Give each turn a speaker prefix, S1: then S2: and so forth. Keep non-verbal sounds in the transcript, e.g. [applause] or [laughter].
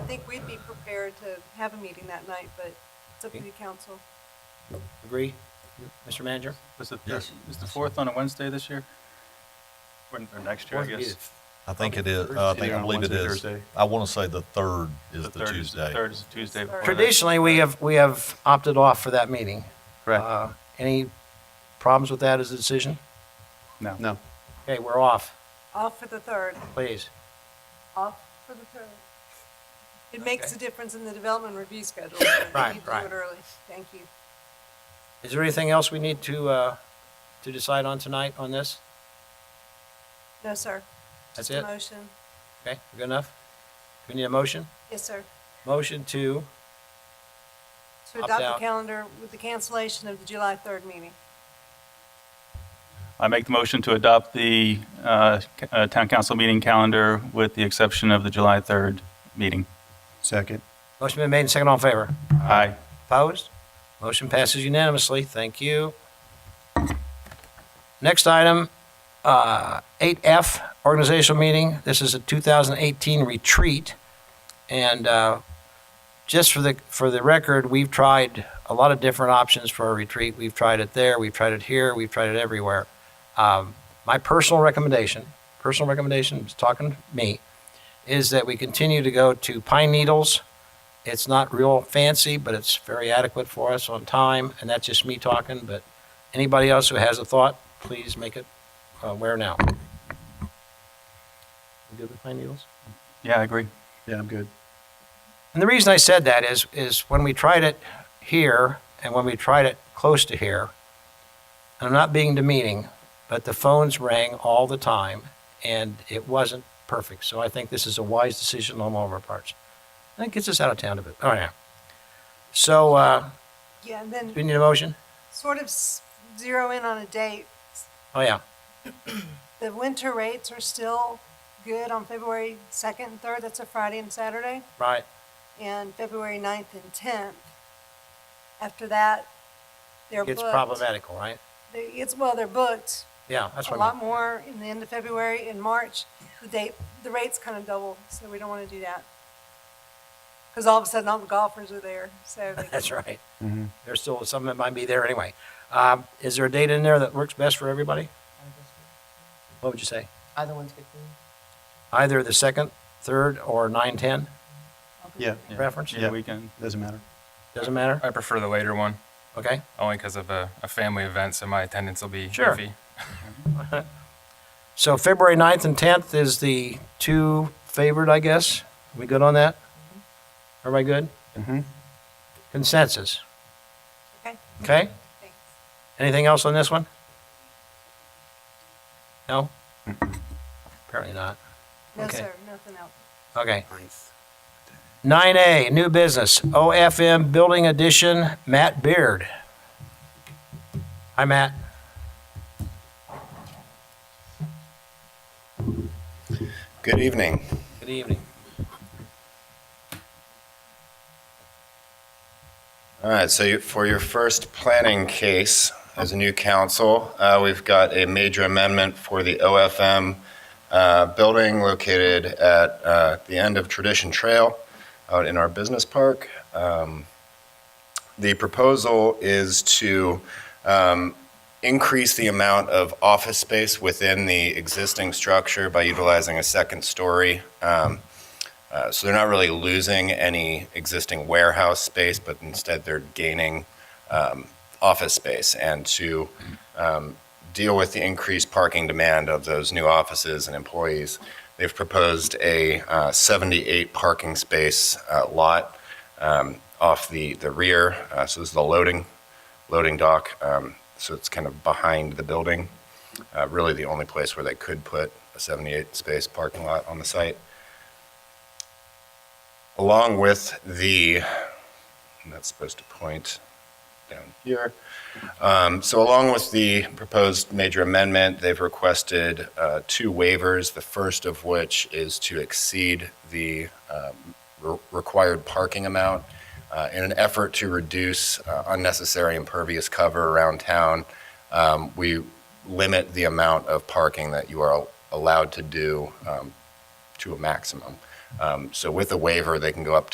S1: think we'd be prepared to have a meeting that night, but it's up to
S2: Okay.
S1: the council.
S2: Agree? Mr. Manager?
S3: Is it,
S4: Yes.
S3: is the fourth on a Wednesday this year? Or or next year, I
S2: Fourth would be
S3: guess?
S2: the
S4: I think it is, uh,
S3: Thursday.
S4: I think,
S3: Either
S4: I
S3: on
S4: believe it
S3: Wednesday or
S4: is.
S3: Thursday.
S4: I want to say the third is the
S3: third is-
S4: Tuesday.
S3: Third is the Tuesday. before that.
S2: Traditionally, we have, we have opted off for that meeting.
S5: Correct.
S2: Uh, Any problems with that as a decision?
S3: No.
S5: No.
S2: Okay, we're off,
S1: Off for the third,
S2: please.
S1: off for the third. It makes
S2: Okay.
S1: a difference in the development review schedule. so we
S2: Right,
S1: need to
S2: right.
S1: Do it early. Thank you.
S2: Is there anything else we need to, uh, to decide on tonight on this?
S1: No, sir.
S2: That's
S1: Just a
S2: it?
S1: Motion.
S2: Okay, good enough? We need a motion?
S1: Yes, sir.
S2: Motion to,
S1: To
S2: Opt
S1: adopt the
S2: out.
S1: calendar with the cancellation of the July third meeting.
S3: I make the motion to adopt the uh, c- uh, town council meeting calendar with the exception of the July 3rd meeting.
S5: Second.
S2: motion been made and second all in favor?
S3: Aye.
S2: Opposed? Motion passes unanimously. Thank you. Next item, uh, 8F, organizational meeting. This is a 2018 retreat. And uh, just for the, for the record, we've tried a lot of different options for a retreat. We've tried it there, we've tried it here, we've tried it everywhere. Um, My personal recommendation, personal recommendation, is talking to me, is that we continue to go to Pine Needles, it's not real fancy, but it's very adequate for us on time, and that's just me talking, but anybody else who has a thought, please make it uh, aware now. You good with Pine Needles?
S3: Yeah, I agree.
S5: Yeah, I'm good.
S2: And the reason I said that is, is when we tried it here and when we tried it close to here, and I'm not being demeaning, but the phones rang all the time and it wasn't perfect. So I think this is a wise decision on all of our parts. And it gets us out of town a bit. Oh, yeah. So, uh,
S1: Yeah, and
S2: do we
S1: then
S2: need a motion?
S1: sort of s- zero in on a date.
S2: Oh, yeah.
S1: The winter rates are still good on February second and third. That's a Friday and Saturday.
S2: Right.
S1: and February 9th and 10th. After that, they're booked.
S2: It's problematical, right?
S1: They- It's, well, they're booked
S2: Yeah, that's
S1: a
S2: what I
S1: lot
S2: mean.
S1: more in the end of February and March. The date, the rates kind of double, so we don't want to do that. Because all of a sudden, all the golfers are there, so.
S2: [laughs]
S1: they-
S2: That's right.
S3: Mm-hmm.
S2: There's still some that might be there anyway. Um, Is there a date in there that works best for everybody? What would you say?
S6: Either one's good for me.
S2: Either the second, third, or nine, ten
S5: Yeah,
S3: Yeah.
S2: preference?
S3: Yeah, we can.
S5: doesn't matter.
S2: Doesn't matter?
S7: I prefer the later one,
S2: Okay.
S7: only because of a, a family event, so my attendance will be
S2: Sure.
S7: iffy.
S2: So February 9th and tenth is the two favored, I guess. We good on that?
S1: Mm-hmm.
S2: Everybody good?
S3: Mm-hmm.
S5: Mhm.
S2: Consensus?
S1: Okay,
S2: Okay?
S1: thanks.
S2: Anything else on this one? No? Apparently not.
S1: No,
S2: Okay.
S1: sir, nothing else.
S2: Okay. Nine A, new business, OFM Building Addition, Matt Beard. Hi, Matt.
S8: Good evening.
S2: Good evening.
S8: All right, so you- for your first planning case as a new council, uh, we've got a major amendment for the OFM uh, building located at uh, the end of Tradition Trail out in our business park. Um, The proposal is to um, increase the amount of office space within the existing structure by utilizing a second story. Um, Uh, So they're not really losing any existing warehouse space, but instead they're gaining um, office space. And to um, deal with the increased parking demand of those new offices and employees, they've proposed a uh, 78 parking space uh, lot um, off the the rear. Uh, So this is the loading, loading dock. Um, So it's kind of behind the building, Uh, really the only place where they could put a 78-space parking lot on the site along with the, and that's supposed to point down here. Um, So along with the proposed major amendment, they've requested uh, two waivers, the first of which is to exceed the um, re- required parking amount uh, in an effort to reduce uh, unnecessary impervious cover around town. um, We limit the amount of parking that you are allowed to do um, to a maximum. Um, So with a waiver, they can go up